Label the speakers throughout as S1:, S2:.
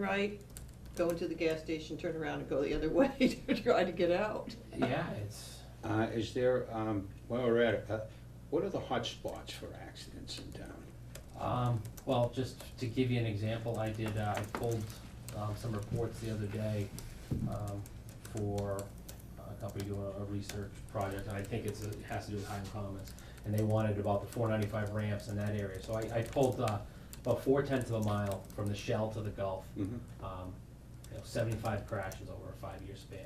S1: right, go into the gas station, turn around and go the other way to try to get out.
S2: Yeah, it's,
S3: Uh, is there, um, while we're at it, uh, what are the hot spots for accidents in town?
S2: um, well, just to give you an example, I did, uh, I pulled, um, some reports the other day, um, for a company doing a research project, and I think it's, it has to do with Highland Commons. And they wanted about the four ninety-five ramps in that area, so I, I pulled, uh, about four tenths of a mile from the Shell to the Gulf.
S3: Mhm.
S2: Um, you know, seventy-five crashes over a five-year span,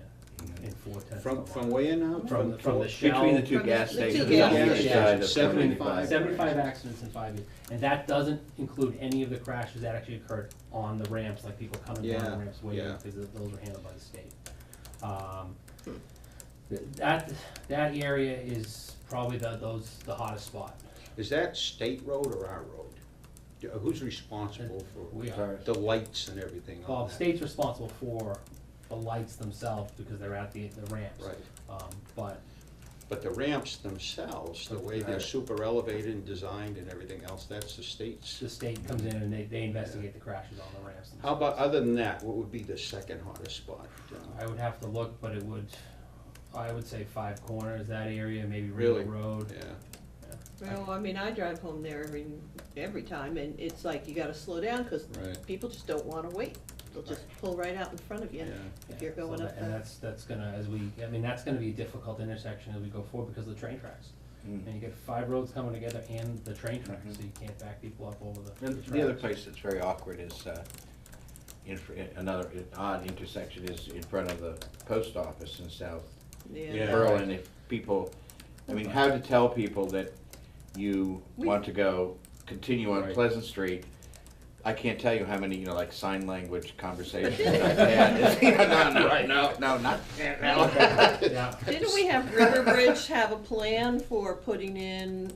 S2: in four tenths of a
S3: From,
S2: mile.
S3: from where now?
S2: From the, from the Shell.
S4: Between the two
S1: From
S4: gas
S1: the- the two
S4: stations.
S1: gas
S4: on the other
S3: stations.
S4: side of
S3: Seventy-five.
S4: 75.
S2: Seventy-five accidents in five years, and that doesn't include any of the crashes that actually occurred on the ramps, like people coming down
S3: Yeah,
S2: the ramps waiting,
S3: yeah.
S2: because th- those were handled by the state. Um, th- That, that area is probably the, those, the hottest spot.
S3: Is that state road or our road? Do- Who's responsible for
S2: We Oh, are,
S3: the lights and everything
S2: well,
S3: on
S2: the
S3: that?
S2: state's responsible for the lights themselves, because they're at the, the ramps.
S3: Right,
S2: Um, but
S3: but the ramps themselves, the way they're
S4: Right.
S3: super elevated and designed and everything else, that's the state's.
S2: the state comes in and they, they investigate the crashes on the ramps themselves.
S3: How about, other than that, what would be the second hottest spot? Uh,
S2: I would have to look, but it would, I would say Five Corners, that area, maybe
S3: Really?
S2: Ringo Road.
S3: Yeah.
S1: Well, I mean, I drive home there every, every time and it's like you gotta slow down because
S3: Right.
S1: people just don't wanna wait. They'll just pull right out in front of you
S3: Yeah.
S1: if you're
S2: Yeah, so
S1: going
S2: that-
S1: up
S2: And
S1: the,
S2: that's, that's gonna, as we, I mean, that's gonna be a difficult intersection as we go forward because of the train tracks.
S4: Mm-hmm.
S2: And you get five roads coming together and the train tracks, so you can't back people up over the
S4: And
S2: the
S4: the other
S2: tracks.
S4: place that's very awkward is, uh, in, fr- another odd intersection is in front of the post office in South
S3: Yeah.
S1: yeah.
S4: Berlin. If people, I mean, how to tell people that you
S1: We-
S4: want to go, continue on
S2: Right.
S4: Pleasant Street. I can't tell you how many, you know, like sign language conversations I've had. You know, No, no, no, not, no.
S2: Yeah,
S1: Didn't we have Riverbridge have a plan for putting in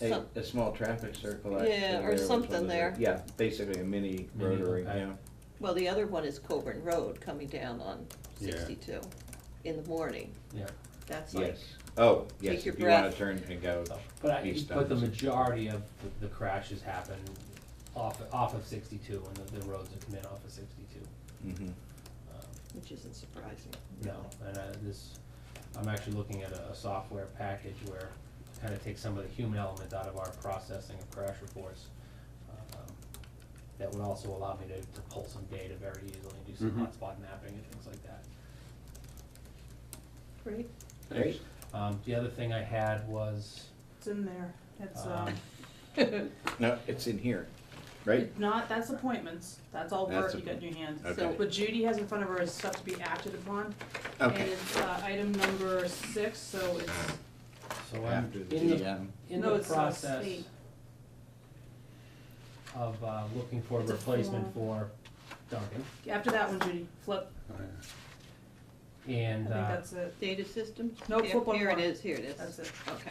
S4: A,
S1: some,
S4: a small traffic circle.
S1: Yeah,
S4: actually,
S1: or
S4: there was one
S1: something
S4: of the-
S1: there.
S4: Yeah, basically a mini
S2: Mini
S4: rotary,
S2: compact.
S4: yeah.
S1: well, the other one is Coburn Road coming down on
S3: Yeah.
S1: sixty-two in the morning.
S2: yeah.
S1: That's like,
S4: Yes. Oh, yes,
S1: Take your
S4: if you wanna
S1: breath.
S4: turn and go,
S2: So, But I,
S4: East
S2: but the
S4: Downs.
S2: majority of the- the crashes happen off, off of sixty-two and the, the roads that come in off of sixty-two.
S4: mhm,
S2: Um,
S1: which isn't surprising.
S2: No, and uh, this, I'm actually looking at a, a software package where it kind of takes some of the human element out of our processing of crash reports. um, That would also allow me to, to pull some data very easily and do some
S4: Mm-hmm.
S3: Mhm.
S2: hotspot mapping and things like that.
S1: Great.
S4: Great.
S2: Um, the other thing I had was,
S5: It's in there. It's,
S2: um,
S5: um,
S4: no, it's in here, right?
S5: not, that's appointments. That's all work
S4: That's
S5: you got in your hands.
S4: Okay.
S1: So-
S5: What Judy has in front of her is stuff to be acted upon. And
S4: Okay.
S5: it's, uh, item number six, so it's,
S2: so I'm
S4: After the
S2: in the,
S4: GM.
S2: in
S5: No,
S2: the
S5: it's, uh,
S2: process
S5: state.
S2: of, uh, looking for a
S5: It's a
S2: replacement for Duncan,
S5: after that one, Judy, flip. I
S2: and,
S5: think
S2: uh,
S5: that's it.
S1: Data system?
S5: No,
S1: Yep,
S5: flip one
S1: Here it
S5: more.
S1: is, here it is.
S5: That's it.
S1: Okay.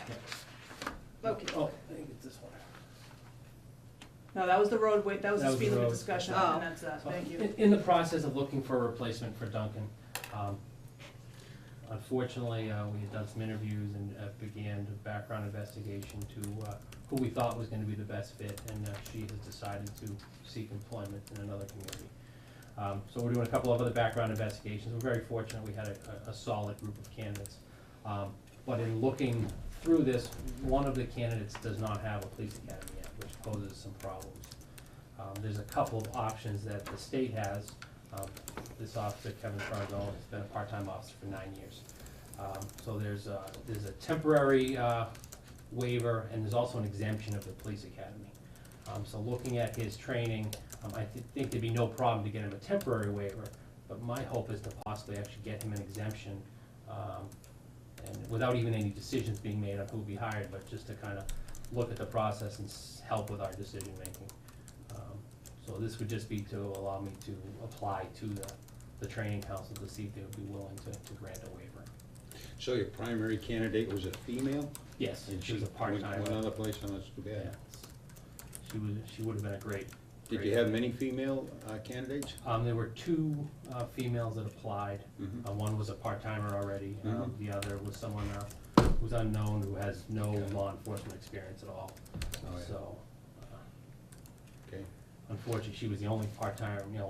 S2: yeah.
S1: Okay.
S2: Oh, I think it's this one.
S5: No, that was the roadway, that was
S2: That
S5: the
S2: was
S5: speed
S2: the
S5: limit
S2: road.
S5: discussion,
S1: Oh.
S5: and that's that. Thank you.
S2: In, in the process of looking for a replacement for Duncan, um, unfortunately, uh, we had done some interviews and uh, began a background investigation to, uh, who we thought was gonna be the best fit, and, uh, she has decided to seek employment in another community. Um, so we're doing a couple of other background investigations, we're very fortunate, we had a, a, a solid group of candidates. Um, but in looking through this, one of the candidates does not have a police academy yet, which poses some problems. Um, there's a couple of options that the state has. Um, this officer, Kevin Fargo, has been a part-time officer for nine years. Um, so there's a, there's a temporary, uh, waiver, and there's also an exemption of the police academy. Um, so looking at his training, um, I thi- think there'd be no problem to get him a temporary waiver, but my hope is to possibly actually get him an exemption, um, and without even any decisions being made on who'll be hired, but just to kind of look at the process and s- help with our decision-making. Um, So this would just be to allow me to apply to the, the training council to see if they would be willing to, to grant a waiver.
S3: So your primary candidate was a female?
S2: Yes,
S3: And
S2: she was a
S3: went-
S2: part-time.
S3: Went other place, and that's too
S2: Yeah.
S3: bad.
S2: She was, she would have been a great.
S3: Did
S2: great-
S3: you have many female uh, candidates?
S2: Um, there were two, uh, females that applied.
S3: Mhm.
S2: Uh, one was a part-timer already, um,
S3: Mhm.
S2: the other was someone, uh, who's unknown, who has no
S3: Okay.
S2: law enforcement experience at all.
S3: Oh, yeah.
S2: So, uh,
S3: Okay.
S2: unfortunately, she was the only part-time, you know,